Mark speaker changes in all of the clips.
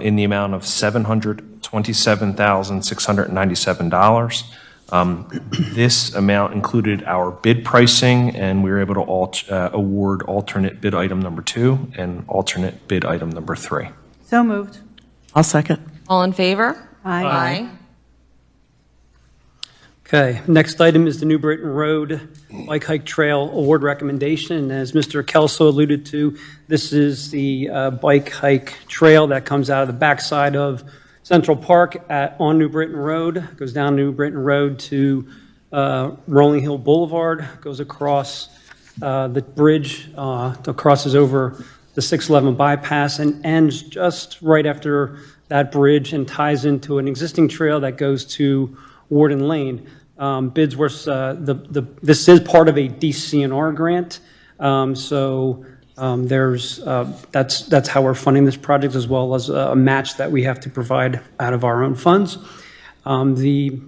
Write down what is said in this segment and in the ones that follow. Speaker 1: in the amount of $727,697. Um, This amount included our bid pricing, and we were able to alt- uh, award alternate bid item number two and alternate bid item number three.
Speaker 2: So moved.
Speaker 3: I'll second.
Speaker 4: All in favor?
Speaker 2: Aye.
Speaker 5: Okay, next item is the New Britain Road Bike Hike Trail Award Recommendation. As Mr. Kelso alluded to, this is the uh, bike hike trail that comes out of the backside of Central Park at, on New Britain Road, goes down New Britain Road to uh, Rolling Hill Boulevard, goes across uh, the bridge, uh, that crosses over the 611 bypass and ends just right after that bridge and ties into an existing trail that goes to Warden Lane. Um, Bids were, uh, the, the, this is part of a DCNR grant, um, so um, there's, uh, that's, that's how we're funding this project, as well as a a match that we have to provide out of our own funds. Um, The,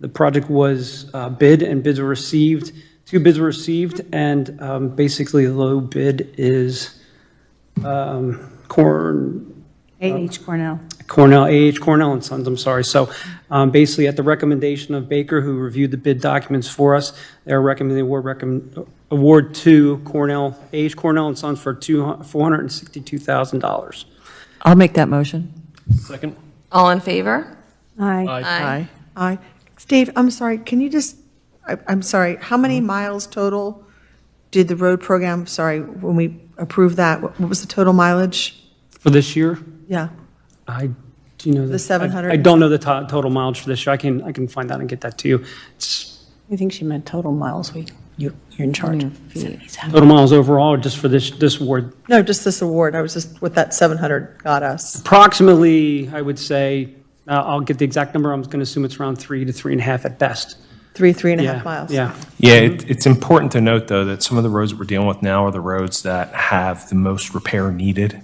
Speaker 5: the project was uh, bid and bids were received, two bids were received, and um, basically the low bid is um, Corn,
Speaker 2: A.H. Cornell.
Speaker 5: Cornell, AH Cornell and Sons, I'm sorry. So um, basically, at the recommendation of Baker, who reviewed the bid documents for us, they're recommending award, recommend, award to Cornell, AH Cornell and Sons for two, $462,000.
Speaker 3: I'll make that motion.
Speaker 1: Second.
Speaker 4: All in favor?
Speaker 2: Aye.
Speaker 3: Aye.
Speaker 6: Aye. Dave, I'm sorry, can you just, I- I'm sorry, how many miles total did the road program, sorry, when we approved that, what what was the total mileage?
Speaker 5: For this year,
Speaker 6: Yeah,
Speaker 5: I, do you know?
Speaker 6: The 700?
Speaker 5: I don't know the to- total mileage for this year. I can, I can find out and get that to you. It's
Speaker 7: I think she meant total miles. We, you, you're in charge.
Speaker 5: total miles overall, just for this, this award.
Speaker 6: no, just this award, I was just, what that 700 got us.
Speaker 5: Approximately, I would say, uh, I'll get the exact number. I'm going to assume it's around three to three and a half at best.
Speaker 6: Three, three and a
Speaker 5: Yeah,
Speaker 6: half miles.
Speaker 5: Yeah.
Speaker 1: Yeah, it, it's important to note, though, that some of the roads that we're dealing with now are the roads that have the most repair needed.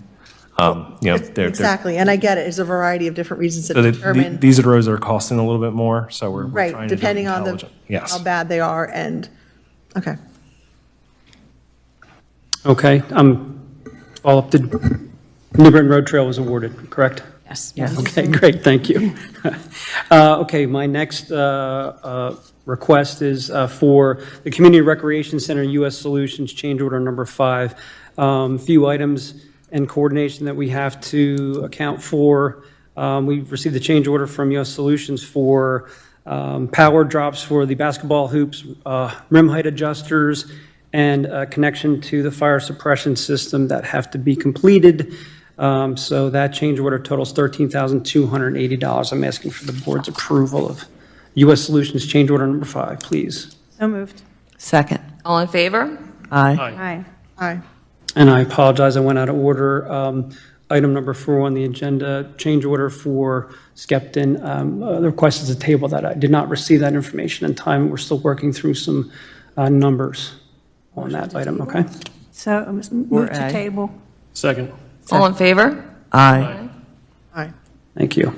Speaker 1: Um, You know, they're, they're,
Speaker 6: Exactly, and I get it, there's a variety of different reasons that
Speaker 1: so that the-
Speaker 6: determine,
Speaker 1: these are the roads that are costing a little bit more, so we're we're
Speaker 6: right,
Speaker 1: trying to do it
Speaker 6: depending on the,
Speaker 1: intelligent.
Speaker 6: how
Speaker 1: Yes.
Speaker 6: bad they are, and, okay.
Speaker 5: Okay, um, all up to, New Britain Road Trail was awarded, correct?
Speaker 7: Yes.
Speaker 5: Okay, great, thank you. Uh, Okay, my next uh, uh, request is uh, for the Community Recreation Center U.S. Solutions Change Order Number Five. Um, Few items and coordination that we have to account for. Um, We've received the change order from U.S. Solutions for um, power drops for the basketball hoops, uh, rim height adjusters, and a connection to the fire suppression system that have to be completed. Um, So that change order totals $13,280. I'm asking for the board's approval of U.S. Solutions Change Order Number Five, please.
Speaker 2: So moved.
Speaker 3: Second.
Speaker 4: All in favor?
Speaker 3: Aye.
Speaker 2: Aye.
Speaker 6: Aye.
Speaker 5: And I apologize, I went out of order. Um, Item number four on the agenda, change order for Skeptin. Um, uh, The request is a table that I did not receive that information in time. We're still working through some uh, numbers on that item, okay?
Speaker 2: So um, move to
Speaker 3: aye.
Speaker 2: table.
Speaker 5: Second.
Speaker 4: All in favor?
Speaker 3: Aye.
Speaker 6: Aye.
Speaker 5: Thank you.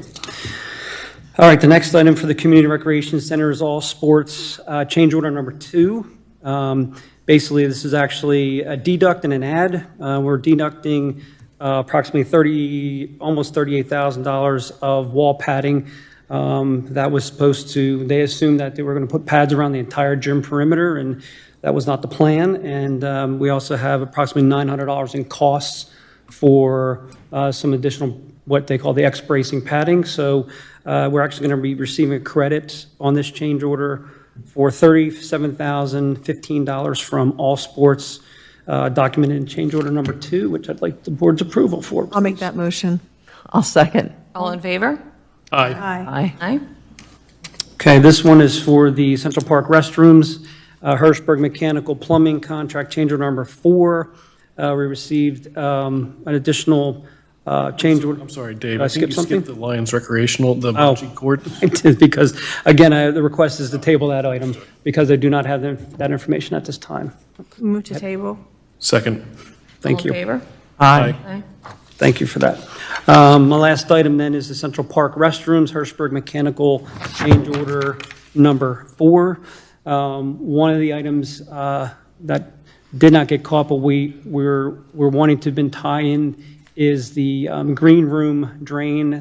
Speaker 5: All right, the next item for the Community Recreation Center is all sports, uh, change order number two. Um, Basically, this is actually a deduct and an add. Uh, We're deducting uh, approximately 30, almost $38,000 of wall padding um, that was supposed to, they assumed that they were going to put pads around the entire gym perimeter, and that was not the plan. And um, we also have approximately $900 in costs for uh, some additional, what they call the X-bracing padding. So uh, we're actually going to be receiving a credit on this change order for $37,015 from All Sports, uh, documented in change order number two, which I'd like the board's approval for.
Speaker 6: I'll make that motion.
Speaker 3: I'll second.
Speaker 4: All in favor?
Speaker 2: Aye.
Speaker 3: Aye.
Speaker 4: Aye.
Speaker 5: Okay, this one is for the Central Park restrooms, uh, Hirschberg Mechanical Plumbing Contract Change Order Number Four. Uh, We received um, an additional uh, change order.
Speaker 8: I'm sorry, Dave.
Speaker 5: Did I skip
Speaker 8: think you
Speaker 5: something? Oh.
Speaker 8: skipped the Lions recreational, the bungee cord.
Speaker 5: I did, because, again, I- the request is to table that item, because I do not have them- that information at this time.
Speaker 2: Move to table.
Speaker 8: Second.
Speaker 5: Thank you.
Speaker 4: All in favor?
Speaker 3: Aye.
Speaker 4: Aye.
Speaker 5: Thank you for that. Um, My last item then is the Central Park restrooms, Hirschberg Mechanical Change Order Number Four. Um, One of the items uh, that did not get caught, but we, we're, we're wanting to been tie in is the um, green room drain